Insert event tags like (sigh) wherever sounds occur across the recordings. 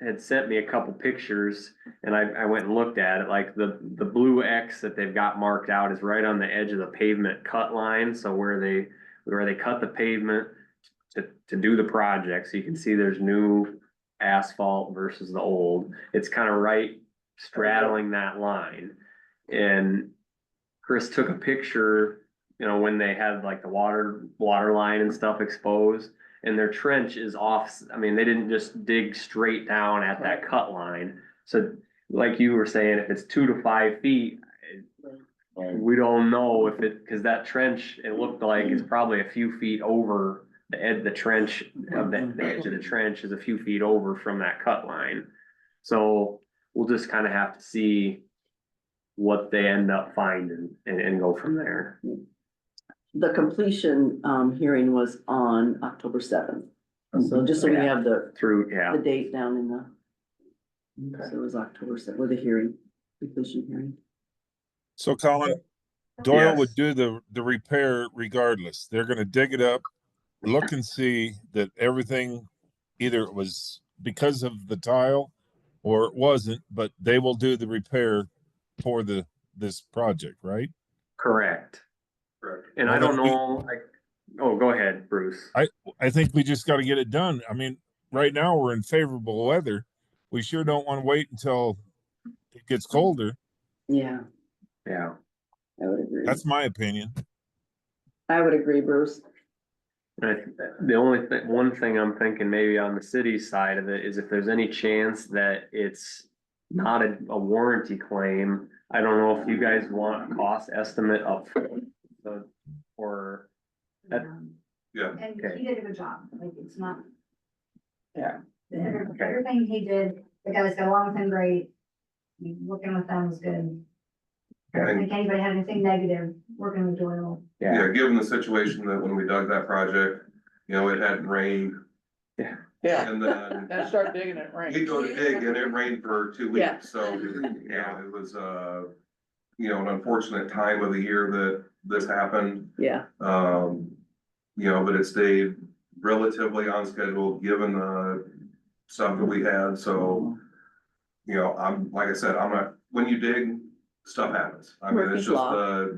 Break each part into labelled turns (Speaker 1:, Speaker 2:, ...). Speaker 1: had sent me a couple pictures and I, I went and looked at it, like the, the blue X that they've got marked out is right on the edge of the pavement cut line, so where they, where they cut the pavement to, to do the project, so you can see there's new asphalt versus the old, it's kind of right straddling that line. And Chris took a picture, you know, when they had like the water, water line and stuff exposed. And their trench is off, I mean, they didn't just dig straight down at that cut line. So like you were saying, if it's two to five feet,
Speaker 2: Right.
Speaker 1: we don't know if it, cause that trench, it looked like it's probably a few feet over. The edge, the trench, of the, the edge of the trench is a few feet over from that cut line. So we'll just kinda have to see what they end up finding and, and go from there.
Speaker 3: The completion um hearing was on October seventh,
Speaker 4: Oh,
Speaker 3: so just so we have the
Speaker 1: Through, yeah,
Speaker 3: the date down in the,
Speaker 2: Okay.
Speaker 3: so it was October seventh, with the hearing, completion hearing.
Speaker 5: So Colin, Doyle
Speaker 1: Yes.
Speaker 5: would do the, the repair regardless. They're gonna dig it up, look and see that everything either it was because of the tile or it wasn't, but they will do the repair for the, this project, right?
Speaker 1: correct. And I don't know, like, oh, go ahead, Bruce.
Speaker 5: I think we just gotta get it done. I mean, right now we're in favorable weather. We sure don't wanna wait until it gets colder.
Speaker 3: Yeah,
Speaker 1: Yeah,
Speaker 3: I would agree.
Speaker 5: That's my opinion.
Speaker 3: I would agree, Bruce.
Speaker 1: And I think that the only thing, one thing I'm thinking maybe on the city side of it is if there's any chance that it's not a, a warranty claim, I don't know if you guys want a cost estimate up front, so, or, That-
Speaker 2: Yeah.
Speaker 6: Um, And
Speaker 1: Okay.
Speaker 6: he did a good job, like, it's not.
Speaker 3: Yeah.
Speaker 6: Every-
Speaker 1: Okay.
Speaker 6: Everything he did, the guys got along with him great, I mean, working with them was good. I don't
Speaker 2: Okay.
Speaker 6: think anybody had anything negative working with Doyle.
Speaker 1: yeah,
Speaker 2: Yeah, given the situation that when we dug that project, you know, it hadn't rained
Speaker 4: Yeah,
Speaker 2: and then
Speaker 4: and start digging it
Speaker 2: we
Speaker 4: rain.
Speaker 2: go to dig and it rained for two
Speaker 3: Yeah.
Speaker 2: weeks, so, you know, it was, uh, you know, an unfortunate time of the year that this happened.
Speaker 3: Yeah,
Speaker 2: Um, you know, but it stayed relatively on schedule, given the stuff that we had, so. You know, I'm, like I said, I'm not, when you dig, stuff happens. I mean, it's
Speaker 3: Murphy's
Speaker 2: just,
Speaker 3: Law.
Speaker 2: uh,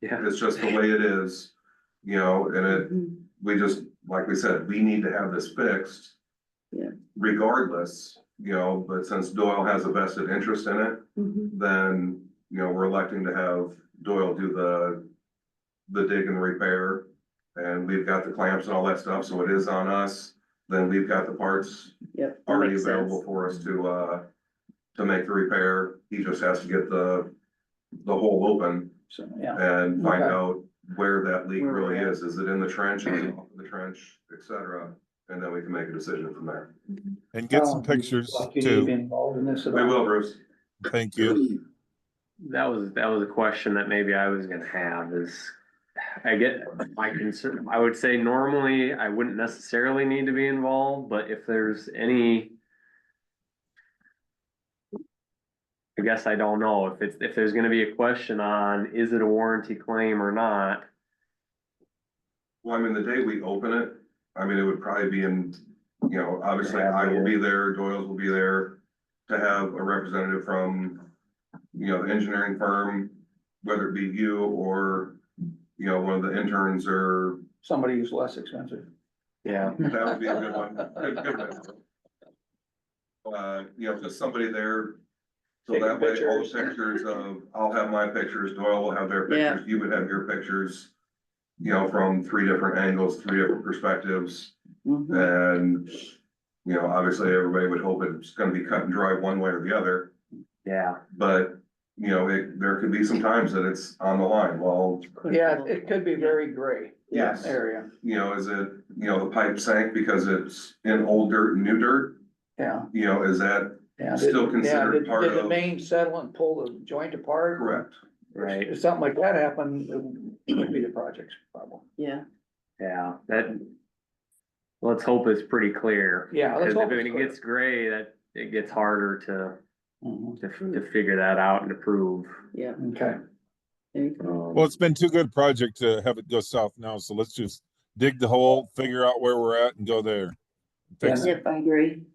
Speaker 1: yeah,
Speaker 2: it's just the way it is, you know, and it,
Speaker 3: Mhm.
Speaker 2: we just, like we said, we need to have this fixed.
Speaker 3: Yeah.
Speaker 2: Regardless, you know, but since Doyle has a vested interest in it,
Speaker 4: Mm-hmm.
Speaker 3: Mhm.
Speaker 2: then, you know, we're electing to have Doyle do the. The dig and repair, and we've got the clamps and all that stuff, so it is on us, then we've got the parts
Speaker 3: yep. that
Speaker 2: already
Speaker 3: makes sense.
Speaker 2: available for us to, uh. To make the repair, he just has to get the, the hole open
Speaker 4: So, yeah,
Speaker 2: and find
Speaker 4: Okay.
Speaker 2: out where that leak
Speaker 3: Where we're
Speaker 2: really
Speaker 3: at.
Speaker 2: is. Is it in the
Speaker 3: (clears throat)
Speaker 2: trench, is it off of the trench, et cetera? And then we can make a decision from there.
Speaker 5: And get some
Speaker 4: Um,
Speaker 5: pictures
Speaker 4: Like, you need to be
Speaker 5: too.
Speaker 4: involved in this at
Speaker 2: We
Speaker 4: all.
Speaker 2: will, Bruce.
Speaker 5: Thank you.
Speaker 1: that was, that was a question that maybe I was gonna have is, I get, my concern, I would say normally I wouldn't necessarily need to be involved, but if there's any. I guess I don't know if it's, if there's gonna be a question on, is it a warranty claim or not?
Speaker 2: Well, I mean, the day we open it, I mean, it would probably be in, you know, obviously I will be there, Doyle's will be there. To have a representative from, you know, the engineering firm, whether it be you or, you know, one of the interns or,
Speaker 4: Somebody who's less expensive.
Speaker 1: Yeah.
Speaker 2: that would be a good one. Good- good one. Uh, you know, just somebody there So
Speaker 4: Taking
Speaker 2: that way, all the
Speaker 4: pictures.
Speaker 2: pictures of, I'll have my pictures, Doyle will have their
Speaker 3: Yeah.
Speaker 2: pictures, you would have your pictures. You know, from three different angles, three different perspectives,
Speaker 3: Mhm.
Speaker 2: and, you know, obviously, everybody would hope it's gonna be cut and dry one way or the other.
Speaker 1: Yeah,
Speaker 2: But, you know, it, there could be some times that it's on the line, well,
Speaker 3: Mm-hmm.
Speaker 4: Yeah, it could be very gray. yeah,
Speaker 2: Yes.
Speaker 4: Area,
Speaker 2: you know, is it, you know, the pipe sank because it's in old dirt and new dirt?
Speaker 4: yeah,
Speaker 2: You know, is that
Speaker 4: yeah.
Speaker 2: Still
Speaker 4: Did- yeah,
Speaker 2: considered
Speaker 4: did-
Speaker 2: part
Speaker 4: Did the
Speaker 2: of-
Speaker 4: main settle and pull the joint apart?
Speaker 2: correct?
Speaker 1: right.
Speaker 4: If something like that happened, it would be the project's problem.
Speaker 3: Yeah,
Speaker 1: Yeah, that. Let's hope it's pretty clear.
Speaker 4: Yeah, let's
Speaker 1: Cause if
Speaker 4: hope it's
Speaker 1: it
Speaker 4: clear.
Speaker 1: gets gray, that it gets harder
Speaker 4: Mhm.
Speaker 1: to, to, to figure that out and to prove.
Speaker 3: yeah.
Speaker 4: Okay,
Speaker 3: there you go.
Speaker 1: um,
Speaker 5: Well, it's been too good a project to have it go south now, so let's just dig the hole, figure out where we're at and go there. Fix it.
Speaker 3: Yep, I agree.